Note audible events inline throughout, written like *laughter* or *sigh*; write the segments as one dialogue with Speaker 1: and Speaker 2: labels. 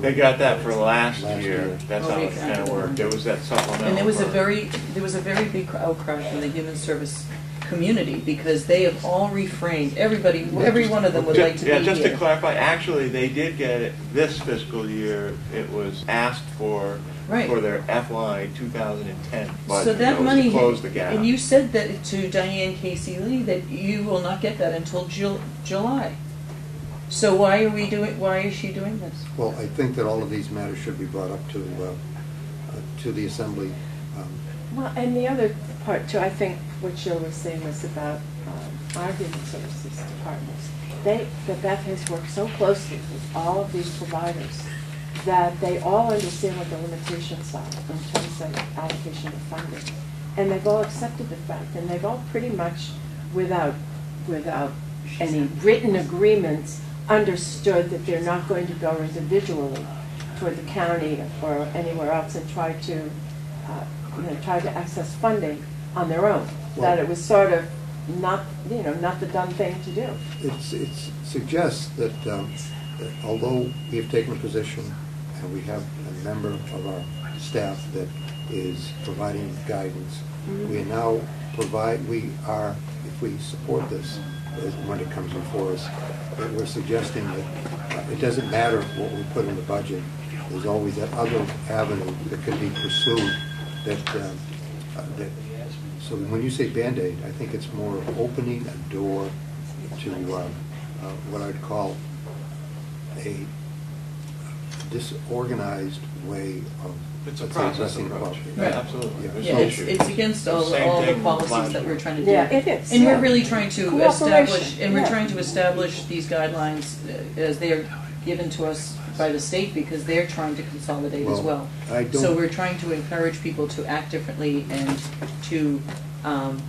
Speaker 1: They got that for last
Speaker 2: Last
Speaker 1: year.
Speaker 2: year.
Speaker 1: That's
Speaker 3: Oh,
Speaker 1: how
Speaker 3: they
Speaker 1: it's
Speaker 3: got
Speaker 1: gonna
Speaker 3: it.
Speaker 1: work. There was that supplemental.
Speaker 3: And there was a
Speaker 1: for-
Speaker 3: very, there was a very big outcry from the human service community because they have all refrained, everybody, every one of them would
Speaker 1: Ju-
Speaker 3: like to be
Speaker 1: Yeah, just to
Speaker 3: here.
Speaker 1: clarify, actually, they did get it this fiscal year. It was asked for,
Speaker 3: Right.
Speaker 1: for their FY 2010 budget.
Speaker 3: So that
Speaker 1: was
Speaker 3: money,
Speaker 1: To close the gap.
Speaker 3: and you said that to Diane Casey Lee that you will not get that until Jul- July. So why are we doing, why is she doing this?
Speaker 2: Well, I think that all of these matters should be brought up to, uh, uh, to the assembly. um,
Speaker 4: Well, and the other part too, I think what Jill was saying was about um, our human services departments. They, that Beth has worked so closely with all of these providers that they all understand what the limitations are in terms of allocation of funding. And they've all accepted the fact, and they've all pretty much, without, without any written agreements, understood that they're not going to go individually toward the county or anywhere else and try to uh, you know, tried to access funding on their own. That it was sort of not, you know, not the done thing to do.
Speaker 2: It's, it suggests that um, that although we have taken a position and we have a member of our staff that is providing guidance, we are now provide, we are, if we support this, as when it comes before us, that we're suggesting that uh, it doesn't matter what we put in the budget, there's always that other avenue that could be pursued that, um, uh, that, so when you say Band-Aid, I think it's more opening a door to uh, uh, what I'd call a disorganized way of.
Speaker 1: It's a
Speaker 2: let's say,
Speaker 1: process
Speaker 2: addressing
Speaker 1: approach.
Speaker 2: poverty.
Speaker 1: Yeah,
Speaker 3: Right.
Speaker 1: absolutely.
Speaker 2: Yeah.
Speaker 1: There's
Speaker 3: Yeah,
Speaker 1: no
Speaker 3: it's,
Speaker 1: issue.
Speaker 3: it's against all,
Speaker 1: Same
Speaker 3: all the
Speaker 1: thing
Speaker 3: policies
Speaker 1: last
Speaker 3: that
Speaker 1: year.
Speaker 3: we're trying to do.
Speaker 4: Yeah, it is.
Speaker 3: And
Speaker 4: yeah.
Speaker 3: we're really trying to
Speaker 4: Cooperation,
Speaker 3: establish, and we're
Speaker 4: yeah.
Speaker 3: trying to establish these guidelines uh, as they are given to us by the state because they're trying to consolidate as well.
Speaker 2: Well, I
Speaker 3: So
Speaker 2: don't-
Speaker 3: we're trying to encourage people to act differently and to, um,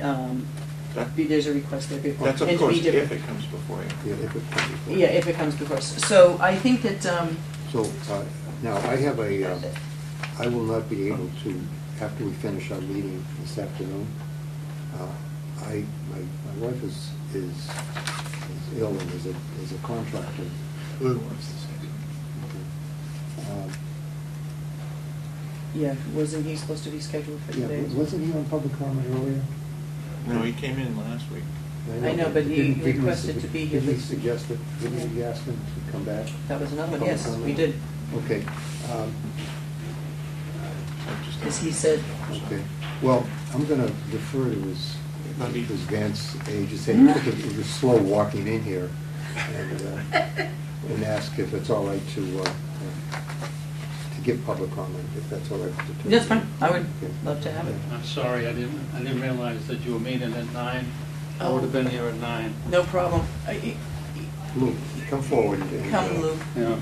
Speaker 3: um,
Speaker 1: That-
Speaker 3: be- there's a request there. be-
Speaker 1: That's
Speaker 3: and to
Speaker 1: of
Speaker 3: be
Speaker 1: course
Speaker 3: different.
Speaker 1: if it comes before you.
Speaker 2: Yeah, if it comes before.
Speaker 3: Yeah, if it comes before us. So I think that, um,
Speaker 2: So uh, now, I have a, uh, I will not be able to, after we finish our meeting this afternoon, uh, I, my my wife is, is is ill and is a, is a contractor.
Speaker 1: Lou wants to say
Speaker 2: Um,
Speaker 3: yeah, wasn't he supposed to be scheduled for
Speaker 2: Yeah,
Speaker 3: today?
Speaker 2: wasn't he on public comment earlier?
Speaker 1: something. No, he came in last week.
Speaker 3: I know, but he
Speaker 2: didn't- didn't
Speaker 3: requested
Speaker 2: sug-
Speaker 3: to be here.
Speaker 2: Didn't he suggest that, didn't we ask him to come back?
Speaker 3: That was another one,
Speaker 2: Public
Speaker 3: yes, we
Speaker 2: comment?
Speaker 3: did.
Speaker 2: Okay, um,
Speaker 1: I'm just-
Speaker 3: As he said.
Speaker 2: okay. Well, I'm gonna defer to his,
Speaker 1: Let me-
Speaker 2: his Vance age, just saying, look, it was slow walking in here, and, uh,
Speaker 3: *laughs*
Speaker 2: and ask if it's all right to, uh, uh, to give public comment, if that's all right. to-
Speaker 3: That's fine, I would
Speaker 2: Okay.
Speaker 3: love to have it.
Speaker 2: Yeah.
Speaker 5: I'm sorry, I didn't, I didn't realize that you were meeting at nine. I would have been here at nine.
Speaker 3: No problem. I-
Speaker 2: Luke, come forward.
Speaker 3: I-
Speaker 2: and,
Speaker 3: Come,
Speaker 2: uh,
Speaker 3: Lou.
Speaker 5: Yeah,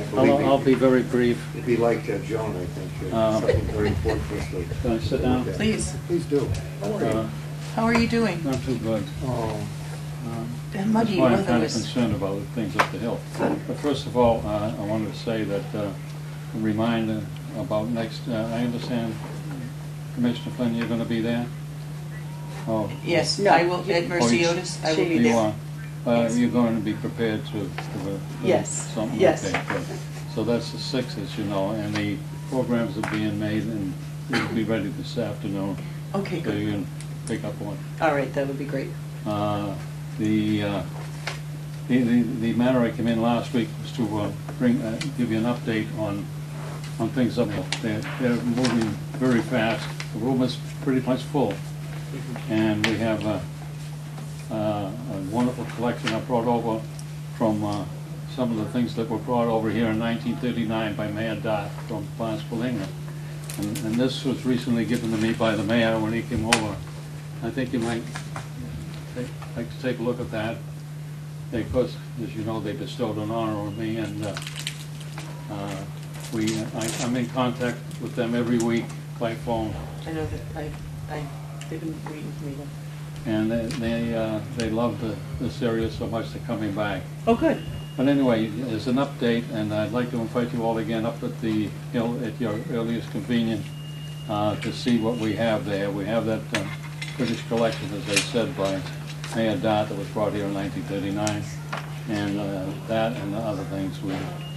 Speaker 2: I believe
Speaker 5: I'll,
Speaker 2: me.
Speaker 5: I'll be very brief.
Speaker 2: It'd be like uh, Joan, I think, uh,
Speaker 5: Uh,
Speaker 2: something very important for us to.
Speaker 5: Can I sit down?
Speaker 2: Okay.
Speaker 3: Please.
Speaker 2: Please do. Don't
Speaker 5: Uh,
Speaker 2: worry.
Speaker 3: How are you doing?
Speaker 5: Not too good.
Speaker 2: Oh,
Speaker 5: Um,
Speaker 3: The
Speaker 5: That's
Speaker 3: muddy
Speaker 5: why I'm
Speaker 3: weather
Speaker 5: kind of
Speaker 3: was,
Speaker 5: concerned about the things up the hill. But first of all, uh, I wanted to say that, uh, remind uh, about next, uh, I understand, Commissioner Flynn, you're going to be there? Oh.
Speaker 3: yes,
Speaker 4: No.
Speaker 3: I will, at Mercy
Speaker 5: Oh, you-
Speaker 3: Otis, I will be
Speaker 4: she-
Speaker 5: You
Speaker 3: there.
Speaker 5: are, uh,
Speaker 3: Yes.
Speaker 5: you're going to be prepared to, to, uh,
Speaker 4: Yes.
Speaker 5: something like
Speaker 4: Yes.
Speaker 5: that. but- So that's the sixth, as you know, and the programs are being made and will be ready this afternoon.
Speaker 3: Okay,
Speaker 5: So
Speaker 3: good.
Speaker 5: you can pick up on.
Speaker 3: All right, that would be great.
Speaker 5: Uh, The, uh, the, the the matter I came in last week was to uh, bring, uh, give you an update on, on things up there. They're moving very fast. The room is pretty much full. And we have uh, a, uh, a wonderful collection I brought over from uh, some of the things that were brought over here in 1939 by Mayor Dodd from Barnstable, England. And and this was recently given to me by the mayor when he came over. I think you might ta- like to take a look at that. They, of course, as you know, they bestowed an honor on me, and uh, uh, we, I- I'm in contact with them every week by phone.
Speaker 3: I know that, I, I, they've been waiting for me to.
Speaker 5: And they, they, uh, they love the, this area so much, they're coming back.
Speaker 3: Oh, good.
Speaker 5: But anyway, as an update, and I'd like to invite you all again up at the hill at your earliest convenience uh, to see what we have there. We have that uh, British collection, as I said, by Mayor Dodd that was brought here in 1939, and uh, that and the other things we